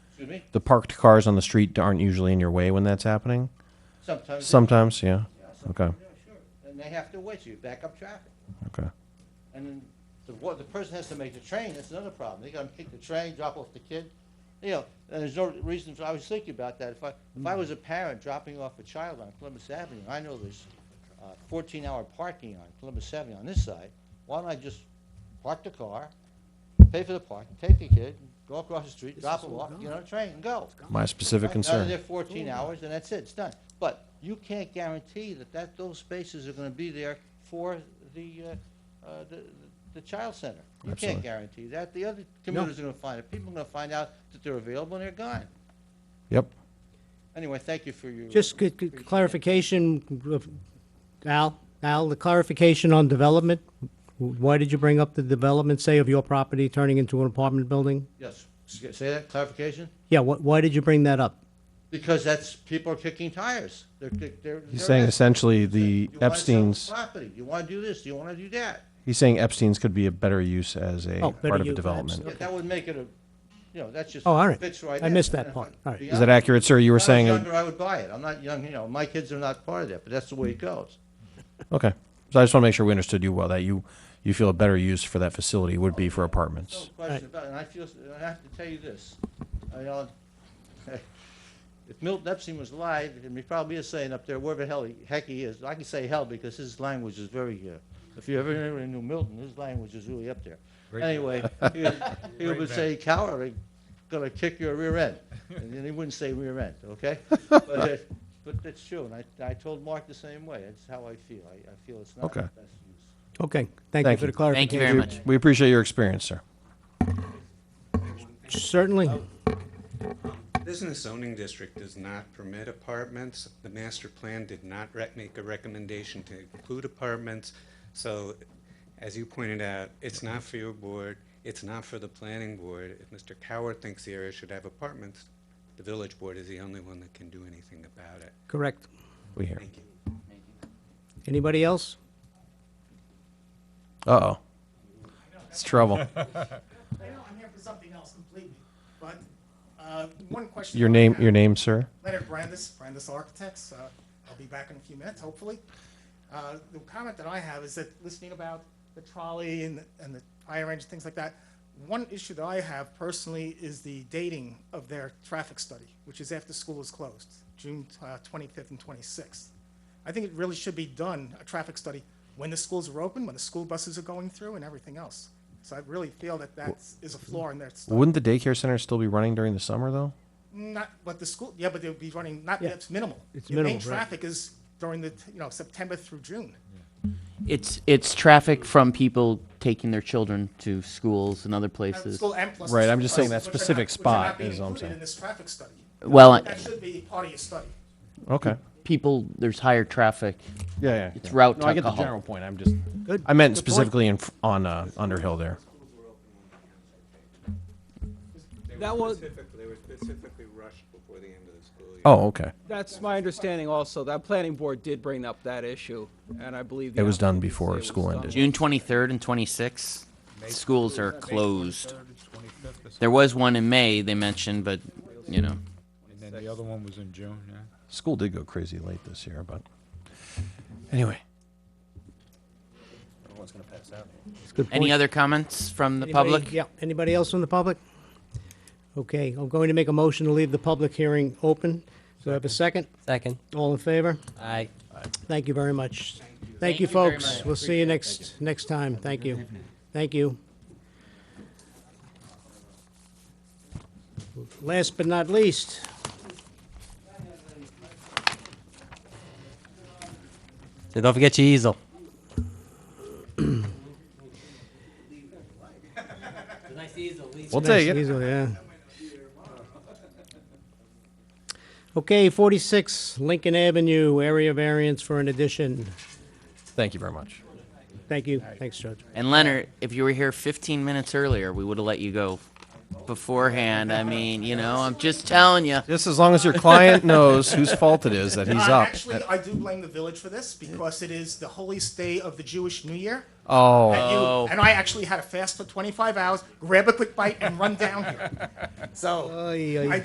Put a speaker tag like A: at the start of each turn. A: Excuse me?
B: The parked cars on the street aren't usually in your way when that's happening?
A: Sometimes. they-
B: Sometimes, yeah.
A: Yeah, some-
B: Okay.
A: yeah, Sure, and they have to wait, so you back up traffic.
B: Okay.
A: And then the, wa- the person has to make the train, that's another problem. They gotta pick the train, drop off the kid. You know, and there's no reason, for I was thinking about that. If I, if I was a parent dropping off a child on Columbus Avenue, I know there's uh, fourteen hour parking on Columbus Avenue on this side. Why don't I just park the car, pay for the parking, take the kid, go across the street, drop him off, get on a train and go.
B: My specific
A: Out of there
B: concern.
A: 14 hours, and that's it, it's done. But you can't guarantee that that, those spaces are going to be there for the, uh, uh, the- the child center. You can't
B: Absolutely.
A: guarantee that. The other commuters are going to find it. People are going to find out that they're available and they're gone.
B: Yep.
A: Anyway, thank you for your.
C: Just c- c- clarification, of- Al, Al, the clarification on development. Why did you bring up the development, say, of your property turning into an apartment building?
A: Yes, S- say that, clarification?
C: Yeah, wh- why did you bring that up?
A: Because that's, people are kicking tires. They're, kick- they're.
B: He's
A: they're
B: saying
A: at-
B: essentially
A: You
B: the
A: wanna sell
B: Epstein's,
A: Property, you want to do this, you want to do that.
B: he's saying Epstein's could be a better use as a
C: Oh, better
B: part of a
C: use,
B: development.
A: Yeah,
C: Okay.
A: That would make it a, you know, that's just.
C: Oh, all right.
A: Fits right
C: I
A: in.
C: missed that
A: And-
C: part. All right.
B: Is that accurate, sir? You were
A: If I was
B: saying, it-
A: younger, I would buy it. I'm not young, you know, my kids are not part of that, but that's the way it goes.
B: okay. So I just want to make sure we understood you well, that you, you feel a better use for that facility would be for
A: No
B: apartments.
A: question about it, and I feel, and I have to tell you this, I, uh, if Milton Epstein was alive, and he probably is saying up there, wherever the hell he, heck he is, I can say hell because his language is very, uh, if you ever ever knew Milton, his language is really up there. Anyway, he would- he would say, coward, I'm gonna kick your rear end, and then he wouldn't say rear end, okay? But, uh, but that's true, and I, I told Mark the same way, that's how I feel, I, I feel it's not the
B: Okay.
A: best use.
C: Okay, thank you
B: Thank
C: for the
B: you.
C: clarification.
D: Thank you very much.
B: We appreciate your experience, sir.
C: Certainly.
E: Business zoning district does not permit apartments. The master plan did not rec- make a recommendation to include apartments. So, as you pointed out, it's not for your board, it's not for the planning board. If Mr. Coward thinks the area should have apartments, the village board is the only one that can do anything about it.
C: Correct.
B: We hear.
C: Anybody else?
B: Uh-oh. It's trouble.
F: I know I'm here for something else completely, but uh, one question.
B: Your
F: I
B: name,
F: have.
B: your name, sir?
F: Leonard Brandis, Brandis Architects. Uh, I'll be back in a few minutes, hopefully. Uh, the comment that I have is that listening about the trolley and, and the fire engine, things like that, one issue that I have personally is the dating of their traffic study, which is after school is closed, June uh, 25th and 26th. I think it really should be done, a traffic study, when the schools are open, when the school buses are going through, and everything else. So I really feel that that is a flaw in their study.
B: Wouldn't the daycare center still be running during the summer, though?
F: Not, but the school, yeah, but they'll be running, not,
C: Yeah.
F: that's minimal.
C: It's
F: Your main
C: minimal, right.
F: traffic is during the, you know, September through June.
D: It's, it's traffic from people taking their children to schools and other
F: Uh,
D: places.
F: School and plus.
B: Right, I'm just saying that
F: which are not-
B: specific
F: which are not
B: spot
F: being
B: is all I'm
F: included
B: saying.
F: In this traffic study.
D: Well, I-
F: That should be part of your study.
B: Okay.
D: People, there's higher traffic.
B: Yeah, yeah.
D: It's route
B: No, I get the
D: alcohol.
B: general point. I'm just.
C: Good.
B: I meant
C: Good point.
B: specifically in fr- on uh, Underhill there.
G: That was,
E: They were specifically rushed before the end of the school year.
B: Oh, okay.
G: that's my understanding also. That planning board did bring up that issue, and I believe. the
B: It was done
G: applicant did
B: before
G: say it was
B: school
G: done.
B: ended.
D: June 23rd and 26th, schools are closed. There was one in May they mentioned, but, you know.
H: And then the other one was in June, yeah?
B: School did go crazy late this year, but anyway.
D: Any other comments from the
C: Anybody-
D: public?
C: Yeah, anybody else from the public? Okay, I'm going to make a motion to leave the public hearing open. Do I have a second?
I: Second.
C: All in favor?
I: Aye.
C: Thank you very much. Thank
D: Thank
C: you,
D: you very
C: folks.
D: much.
C: We'll see you next, next time. Thank you. Thank you. Last but not least,
I: So don't forget your easel. nice easel.
B: We'll take
C: Nice
B: it.
C: easel, yeah. Okay, 46 Lincoln Avenue, area variance for an addition.
B: Thank you very much.
C: Thank you. Thanks, Judge.
D: And Leonard, if you were here 15 minutes earlier, we would have let you go beforehand. I mean, you know, I'm just telling you.
B: Just as long as your client knows whose fault it is that he's
F: Uh,
B: up.
F: Actually, I do blame the village for this because it is the holiest day of the Jewish New Year.
B: oh,
F: And you-
D: Oh.
F: And I actually had to fast for 25 hours, grab a quick bite, and run down here. So,
C: Ay, ay,
F: I